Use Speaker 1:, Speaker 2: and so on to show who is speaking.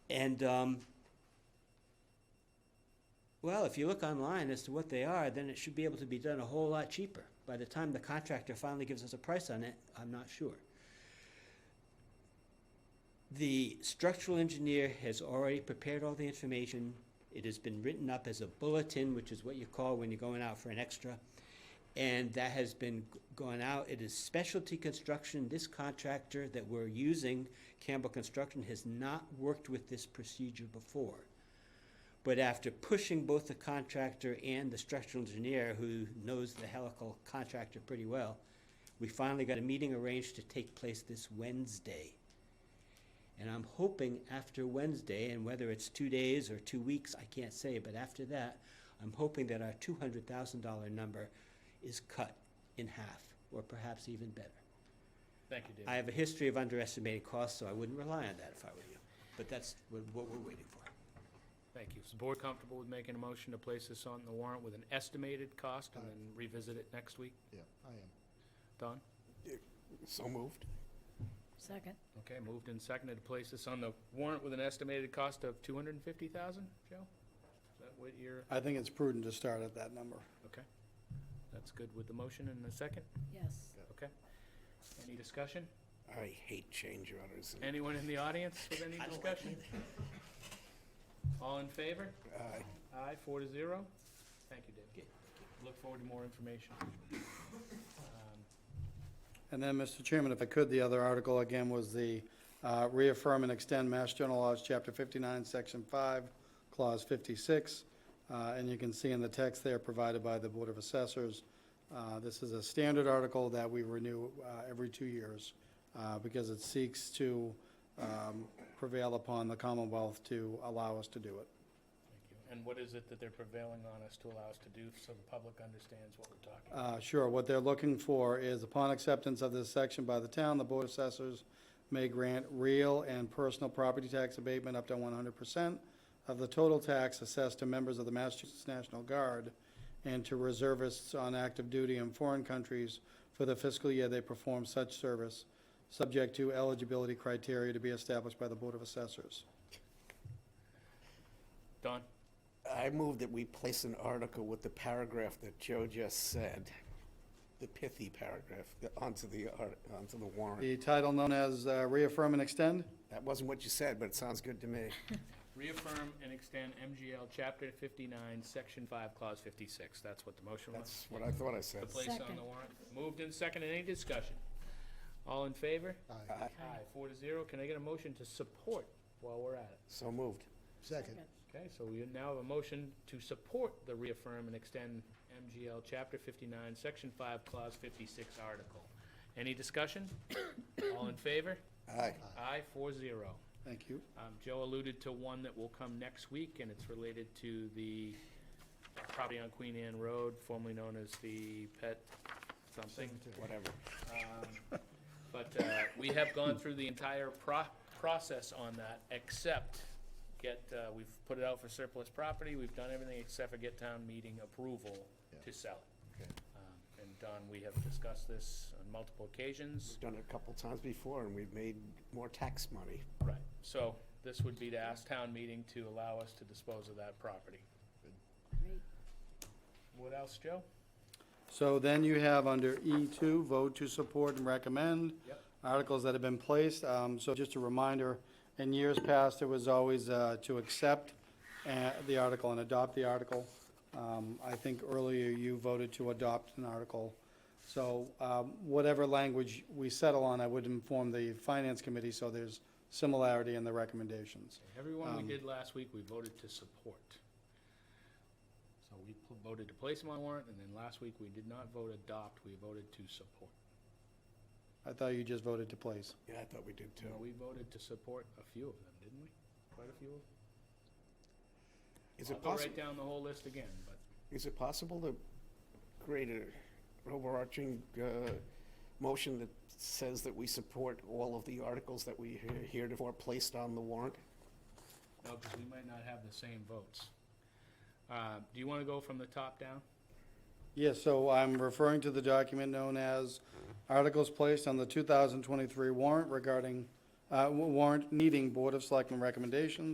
Speaker 1: And, um, well, if you look online as to what they are, then it should be able to be done a whole lot cheaper. By the time the contractor finally gives us a price on it, I'm not sure. The structural engineer has already prepared all the information. It has been written up as a bulletin, which is what you call when you're going out for an extra. And that has been g- gone out. It is specialty construction. This contractor that we're using, Campbell Construction, has not worked with this procedure before. But after pushing both the contractor and the structural engineer, who knows the helical contractor pretty well, we finally got a meeting arranged to take place this Wednesday. And I'm hoping after Wednesday, and whether it's two days or two weeks, I can't say, but after that, I'm hoping that our two hundred thousand dollar number is cut in half, or perhaps even better.
Speaker 2: Thank you,
Speaker 1: I
Speaker 2: David.
Speaker 1: have a history of underestimating costs, so I wouldn't rely on that if I were you, but that's what, what we're waiting for.
Speaker 2: Thank you. Is the board comfortable with making a motion to place this on the warrant with an estimated cost and
Speaker 3: Aye.
Speaker 2: then revisit it next week?
Speaker 3: Yeah, I am.
Speaker 2: Don?
Speaker 4: So moved.
Speaker 5: Second.
Speaker 2: Okay, moved and seconded to place this on the warrant with an estimated cost of two hundred and fifty thousand, Joe? Is that what you're,
Speaker 4: I think it's prudent to start at that number.
Speaker 2: okay. That's good with the motion and the second?
Speaker 5: Yes.
Speaker 2: Okay. Any discussion?
Speaker 4: I hate change orders. and-
Speaker 2: Anyone in the audience with any
Speaker 1: I don't like
Speaker 2: discussion? All in favor?
Speaker 4: Aye.
Speaker 2: Aye, four to zero. Thank you, David. Look forward to more information. Um,
Speaker 4: And then, Mr. Chairman, if I could, the other article again was the uh, reaffirm and extend Mass General Laws, Chapter 59, Section 5, Clause 56. Uh, And you can see in the text there provided by the Board of Assessors, uh, this is a standard article that we renew uh, every two years uh, because it seeks to um, prevail upon the Commonwealth to allow us to do it.
Speaker 2: Thank you. And what is it that they're prevailing on us to allow us to do so the public understands what we're talking? about?
Speaker 4: Uh, Sure, what they're looking for is upon acceptance of this section by the town, the board of assessors may grant real and personal property tax abatement up to one hundred percent of the total tax assessed to members of the Massachusetts National Guard and to reservists on active duty in foreign countries for the fiscal year they perform such service, subject to eligibility criteria to be established by the board of assessors.
Speaker 2: Don,
Speaker 6: I move that we place an article with the paragraph that Joe just said, the pithy paragraph, the- onto the, art- onto the warrant.
Speaker 4: The title known as uh, reaffirm and extend?
Speaker 6: That wasn't what you said, but it sounds good to me.
Speaker 2: reaffirm and extend MGL Chapter 59, Section 5, Clause 56. That's what the motion was.
Speaker 6: That's what I thought I
Speaker 2: The
Speaker 6: said.
Speaker 2: place on
Speaker 5: Second.
Speaker 2: the warrant. Moved and seconded. Any discussion? All in favor?
Speaker 3: Aye.
Speaker 2: Aye, four to zero. Can I get a motion to support while we're at it?
Speaker 6: So moved.
Speaker 3: Second,
Speaker 2: Okay, so we now have a motion to support the reaffirm and extend MGL Chapter 59, Section 5, Clause 56 article. Any discussion? All in favor?
Speaker 6: Aye.
Speaker 2: Aye, four zero.
Speaker 4: Thank you.
Speaker 2: Um, Joe alluded to one that will come next week, and it's related to the uh, property on Queen Anne Road, formerly known as the Pet something.
Speaker 6: Whatever.
Speaker 2: Um, But uh, we have gone through the entire pro- process on that, except get, uh, we've put it out for surplus property, we've done everything except for get town meeting approval to sell it.
Speaker 3: Okay.
Speaker 2: Um, And Don, we have discussed this on multiple occasions.
Speaker 6: We've done it a couple times before, and we've made more tax money.
Speaker 2: Right, so this would be to ask town meeting to allow us to dispose of that property.
Speaker 5: Great.
Speaker 2: What else, Joe?
Speaker 4: So then you have under E2, vote to support and recommend.
Speaker 2: Yep.
Speaker 4: Articles that have been placed. Um, So just a reminder, in years past, it was always uh, to accept uh, the article and adopt the article. Um, I think earlier you voted to adopt an article. So um, whatever language we settle on, I would inform the Finance Committee, so there's similarity in the recommendations.
Speaker 2: Everyone we
Speaker 4: Um,
Speaker 2: did last week, we voted to support. So we pl- voted to place them on warrant, and then last week, we did not vote adopt, we voted to support.
Speaker 4: I thought you just voted to place.
Speaker 6: Yeah, I thought we did
Speaker 2: So
Speaker 6: too.
Speaker 2: we voted to support a few of them, didn't we? Quite a few of them.
Speaker 6: Is
Speaker 2: I'll
Speaker 6: it
Speaker 2: go right
Speaker 6: possible,
Speaker 2: down the whole list again, but
Speaker 6: is it possible to create a overarching uh, motion that says that we support all of the articles that we he- heretofore placed on the warrant?
Speaker 2: no, because we might not have the same votes. Uh, Do you want to go from the top down?
Speaker 4: Yes, so I'm referring to the document known as Articles Placed on the 2023 Warrant regarding, uh, wa- warrant needing Board of Selectmen recommendations.